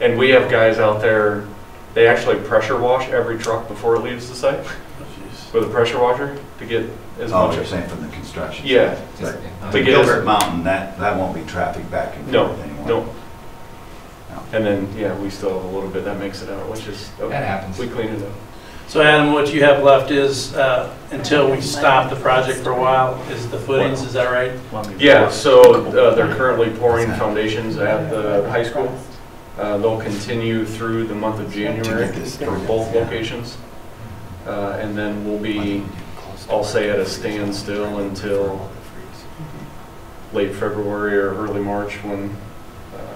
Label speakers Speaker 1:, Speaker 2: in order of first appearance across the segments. Speaker 1: And we have guys out there, they actually pressure wash every truck before it leaves the site with a pressure washer to get as
Speaker 2: Oh,
Speaker 1: much
Speaker 2: you're
Speaker 1: as.
Speaker 2: saying from the construction?
Speaker 1: Yeah,
Speaker 2: But
Speaker 3: uh,
Speaker 1: To
Speaker 2: but
Speaker 1: get us-
Speaker 2: Gilbert Mountain, that, that won't be traffic back and
Speaker 1: no,
Speaker 2: forth anymore.
Speaker 1: no. And then, yeah, we still have a little bit, that makes it out, which is, oh,
Speaker 3: That happens.
Speaker 1: we clean it up.
Speaker 4: So Adam, what you have left is, uh, until we stop the project for a while, is the footings, is that right?
Speaker 1: Yeah, so uh, they're currently pouring foundations at the high school. Uh, They'll continue through the month of January for both locations. Uh, And then we'll be, I'll say at a standstill until late February or early March when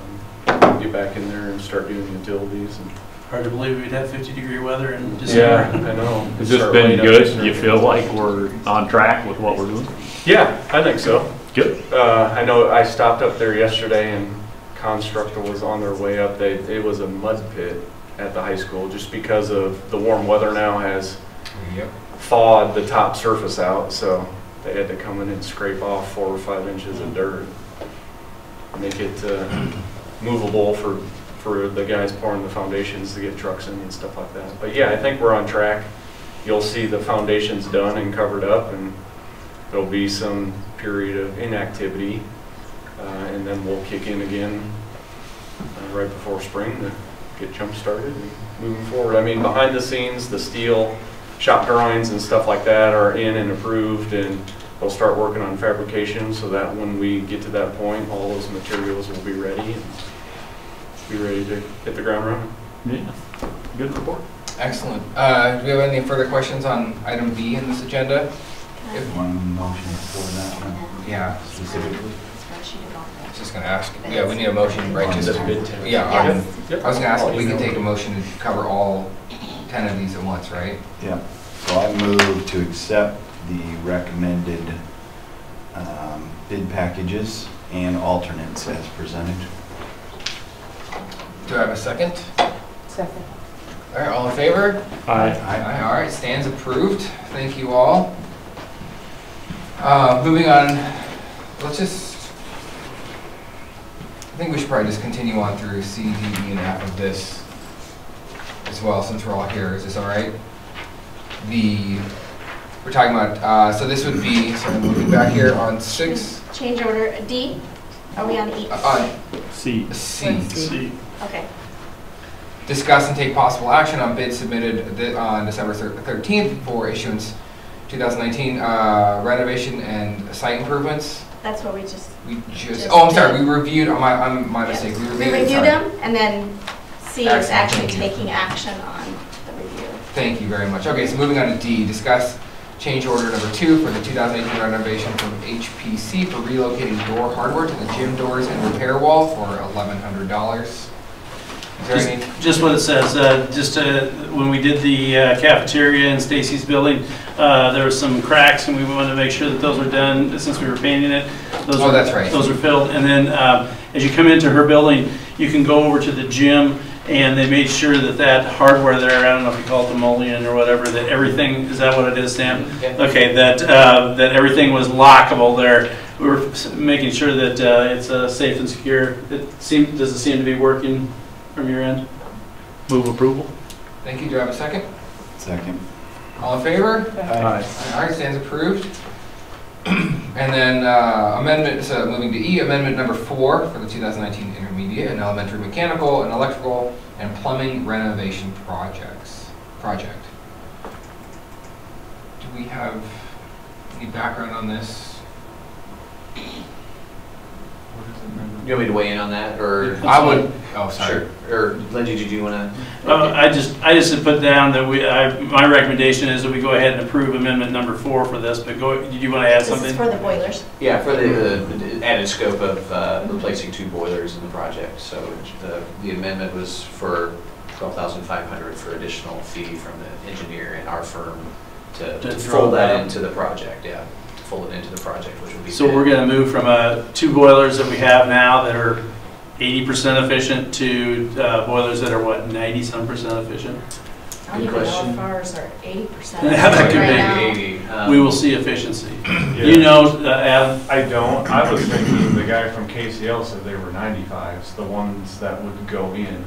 Speaker 1: um, we get back in there and start doing utilities. and-
Speaker 4: Hard to believe we'd have 50-degree weather in
Speaker 1: Yeah,
Speaker 4: December.
Speaker 1: I know.
Speaker 5: Has this
Speaker 1: Start
Speaker 5: been
Speaker 1: laying up
Speaker 5: good?
Speaker 1: this
Speaker 5: You
Speaker 1: year.
Speaker 5: feel like we're on track with what we're doing?
Speaker 1: Yeah, I think so.
Speaker 5: Good.
Speaker 1: Uh, I know I stopped up there yesterday and Constructor was on their way up. They, it was a mud pit at the high school just because of the warm weather now has
Speaker 3: Yep.
Speaker 1: thawed the top surface out, so they had to come in and scrape off four or five inches of dirt. Make it, uh, movable for, for the guys pouring the foundations to get trucks in and stuff like that. But yeah, I think we're on track. You'll see the foundations done and covered up and there'll be some period of inactivity. Uh, and then we'll kick in again, uh, right before spring to get jump started and moving forward. I mean, behind the scenes, the steel, shop drawings and stuff like that are in and approved, and they'll start working on fabrication, so that when we get to that point, all those materials will be ready, and be ready to hit the ground running.
Speaker 5: Yeah. Good report.
Speaker 3: Excellent. Uh, do we have any further questions on item B in this agenda?
Speaker 2: One motion for that one
Speaker 3: Yeah.
Speaker 2: specifically?
Speaker 6: Spreadsheet about
Speaker 3: I was
Speaker 6: that.
Speaker 3: just gonna ask, yeah, we need a motion, right, just,
Speaker 1: The bid tab.
Speaker 3: yeah, on-
Speaker 1: Yep.
Speaker 3: I was gonna ask if we
Speaker 1: I'll
Speaker 3: could
Speaker 1: email.
Speaker 3: take a motion to cover all ten of these at once, right?
Speaker 2: Yeah, so I move to accept the recommended um, bid packages and alternates as presented.
Speaker 3: Do I have a second?
Speaker 7: Second.
Speaker 3: All right, all in favor?
Speaker 5: Aye.
Speaker 3: Aye, all right, stands approved. Thank you all. Uh, Moving on, let's just, I think we should probably just continue on through C, D, E, and F of this as well, since we're all here. Is this all right? The, we're talking about, uh, so this would be, sorry, moving back here on six,
Speaker 6: Change order D? Are we on E?
Speaker 3: uh,
Speaker 5: C.
Speaker 3: on C.
Speaker 4: See,
Speaker 6: Okay.
Speaker 3: Discuss and take possible action on bids submitted thi- on December thir- 13th for issuance 2019 uh, renovation and site improvements.
Speaker 6: That's what we just.
Speaker 3: We just,
Speaker 6: Just
Speaker 3: oh, I'm sorry,
Speaker 6: did.
Speaker 3: we reviewed, uh, my, I'm- my mistake.
Speaker 6: We
Speaker 3: it,
Speaker 6: reviewed
Speaker 3: sorry.
Speaker 6: them, and then C
Speaker 3: Action,
Speaker 6: is actually
Speaker 3: thank you.
Speaker 6: taking action on the review.
Speaker 3: Thank you very much. Okay, so moving on to D, discuss change order number two for the 2018 renovation from HPC for relocating door hardware to the gym doors and repair wall for $1,100. Is there
Speaker 4: Just-
Speaker 3: any?
Speaker 4: Just what it says, uh, just uh, when we did the uh, cafeteria in Stacy's building, uh, there were some cracks, and we wanted to make sure that those were done, since we were painting it. Those
Speaker 3: Oh,
Speaker 4: were-
Speaker 3: that's right.
Speaker 4: Those were filled, and then uh, as you come into her building, you can go over to the gym, and they made sure that that hardware there, I don't know if you call it the mullion or whatever, that everything, is that what it is, Sam? Okay, that, uh, that everything was lockable there. We were s- making sure that uh, it's uh, safe and secure. It seemed, does it seem to be working from your end?
Speaker 5: Move approval?
Speaker 3: Thank you. Do I have a second?
Speaker 2: Second.
Speaker 3: All in favor?
Speaker 5: Aye.
Speaker 3: All right, stands approved. And then uh, amendment, so moving to E, amendment number four for the 2019 intermediate and elementary mechanical and electrical and plumbing renovation projects, project. Do we have any background on this?
Speaker 8: You want me to weigh in on that, or?
Speaker 3: I would, oh, sorry.
Speaker 8: Sure, or Lindsay, did you want to?
Speaker 4: Uh, I just, I just had put down that we, I, my recommendation is that we go ahead and approve amendment number four for this, but go, did you want to add
Speaker 6: This is
Speaker 4: something?
Speaker 6: for the boilers.
Speaker 8: Yeah, for the uh, the added scope of uh, replacing two boilers in the project, so the the amendment was for 12500 for additional fee from the engineer and our firm to
Speaker 4: To
Speaker 8: to
Speaker 4: throw
Speaker 8: fold
Speaker 4: that.
Speaker 8: that into the project, yeah, to fold it into the project, which would be.
Speaker 4: So we're
Speaker 8: good.
Speaker 4: gonna move from, uh, two boilers that we have now that are eighty percent efficient to, uh, boilers that are what, ninety-some percent efficient?
Speaker 6: I don't even
Speaker 8: Good
Speaker 6: know
Speaker 8: question.
Speaker 6: if ours are eighty percent.
Speaker 4: Yeah, that could be.
Speaker 6: Right now.
Speaker 8: um,
Speaker 4: We will see efficiency.
Speaker 9: Yeah.
Speaker 4: You know, uh, Adam,
Speaker 9: I don't, I was thinking the guy from KCL said they were 95s, the ones that would go in.